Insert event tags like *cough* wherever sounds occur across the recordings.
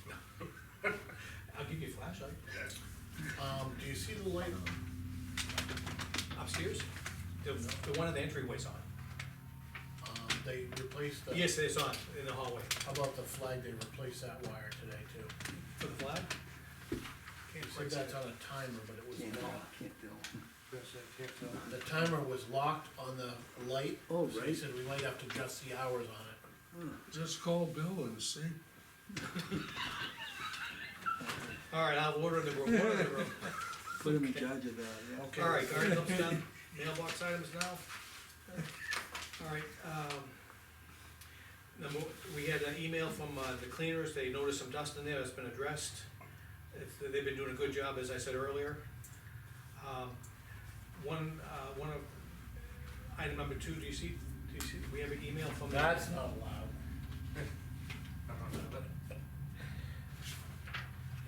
*laughs* flashlight Um, do you see the light? upstairs? The, the one in the entryway's on. Um, they replaced the. Yes, it's on, in the hallway, How About the flag, they replaced that wire today too. for the flag. Can't It's quite like see that's it. on a timer, but it Can't was tell, locked. can't tell. The timer was locked on the light. Oh, So they right. said we might have to adjust the hours on it. Just call Bill and see. All right, I'll order the room, order the room. Put him in charge of that, yeah. Okay. All right, articles *laughs* done, mailbox items now. All right, um, number, we had an email from, uh, the cleaners, they noticed some dust in there, that has been addressed. It's- They've been doing a good job, as I said earlier. Um, One, uh, one of, item number two, do you see, do you see, we have an email from. the- That's not allowed.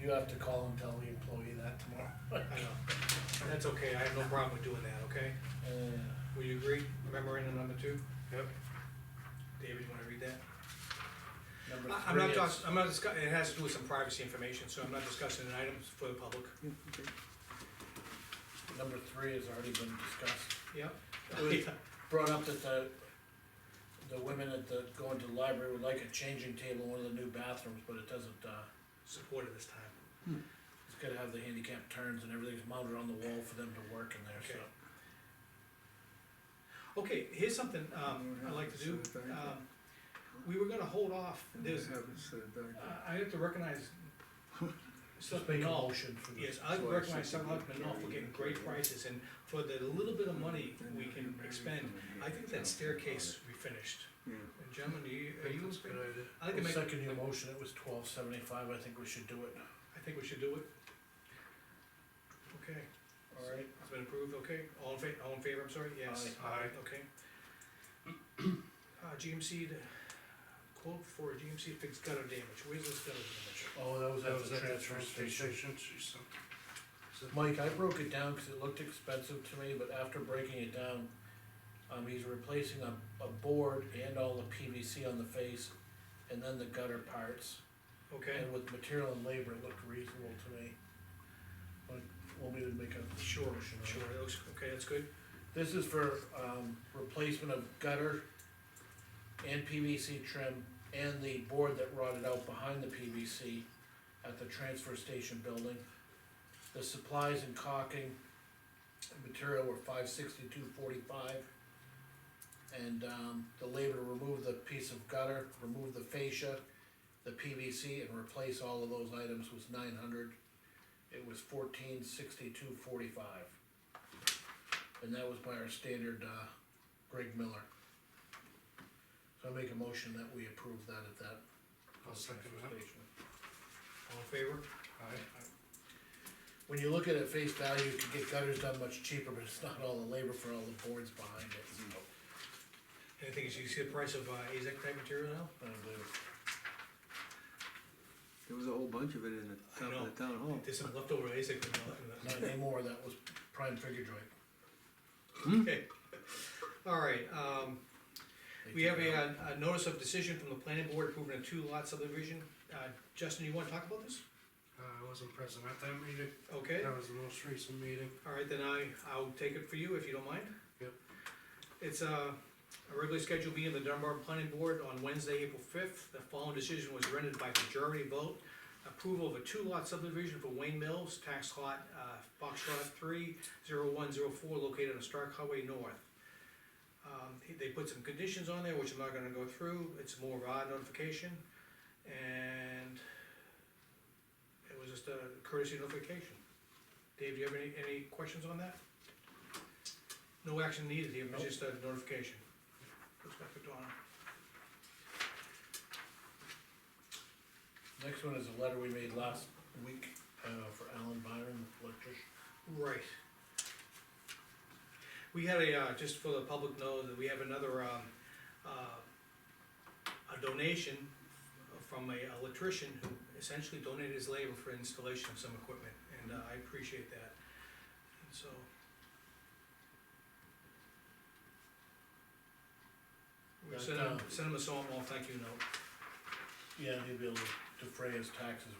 You have to call and tell the employee that tomorrow. *laughs* I know, that's okay, I have no problem with doing that, okay? Uh, Will you agree, memorandum number two? Yep. David, you wanna read that? Number I- I'm not three is- talking, I'm not discussing, it has to do with some privacy information, so I'm not discussing an item for the public. Yeah, okay. Number three has already been discussed. *laughs* Yep. Good. Brought up that the, the women at the, going to the library would like a changing table in one of the new bathrooms, but it doesn't, uh, Supported this time. it's gotta have the handicap turns and everything's mounted on the wall for them to work in there, so. Okay. Okay, here's something, um, I'd like to do, um, we were gonna hold off, And there's, have it set back. I- I have to recognize. Just Selectman make a Knoll, motion for this. yes, I So I recognize should- Selectman Knoll for getting great prices, and for the little bit of money Then we you can marry expend, someone, I yeah. think that staircase we finished. Yeah, And Gentlemen, do you, are you? I I think it makes. second your motion, it was twelve seventy-five, I think we should do it. I think we should do it. Okay, Alright. it's been approved, okay, all in fa- all in favor, I'm sorry, yes. Aye. Aye. Okay. Uh, GMC, the quote for GMC fixed gutter damage, where's this gutter damage? Oh, that was That at was the at the transfer transfer station. station, she said. Mike, I broke it down because it looked expensive to me, but after breaking it down, um, he's replacing a, a board and all the PVC on the face, and then the gutter parts. Okay, And with material and labor, it looked reasonable to me. But, want me to make a. Sure, motion on it? sure, that looks, okay, that's good, This is for, um, replacement of gutter and PVC trim and the board that rotted out behind the PVC at the transfer station building. The supplies and caulking and material were five sixty-two forty-five. And, um, the labor to remove the piece of gutter, remove the fascia, the PVC, and replace all of those items was nine hundred. It was fourteen sixty-two forty-five. And that was by our standard, uh, Greg Miller. So I make a motion that we approve that at that. I'll second that. that. all in favor? Aye. When you look at it face value, you can get gutters done much cheaper, but it's not all the labor for all the boards behind it, so. And the thing is, you see the price of, uh, AZAC type material now? I don't believe it. there was a whole bunch of it in the I town, know. the town hall. There's some leftover AZAC material. in that. Not anymore, that was prime figure joint. Mm-hmm. Okay, all right, um, They we have took it a, out. uh, a notice of decision from the planning board approving a two-lot subdivision, uh, Justin, you wanna talk about this? Uh, I wasn't present at that meeting, Okay. that was the most recent meeting. All right, then I, I'll take it for you if you don't mind. Yep. It's uh, a regularly scheduled meeting of the Dunbar Planning Board on Wednesday, April fifth. The following decision was rendered by majority vote. Approval of a two-lot subdivision for Wayne Mills, tax lot, uh, box lot three, zero one zero four, located on Stark Highway North. Um, he- they put some conditions on there, which I'm not gonna go through, it's more of a notification, and it was just a courtesy notification. Dave, do you have any, any questions on that? No action needed here, it was Nope. just a notification. Looks back to Donna. Next one is a letter we made last week, uh, for Alan Byron, electrician. Right. We had a, uh, just for the public know, that we have another, um, uh, a donation from a electrician who essentially donated his labor for installation of some equipment, and uh, I appreciate that, and so. We That, sent him, uh, sent him a small thank you note. Yeah, he'd be able to defray his taxes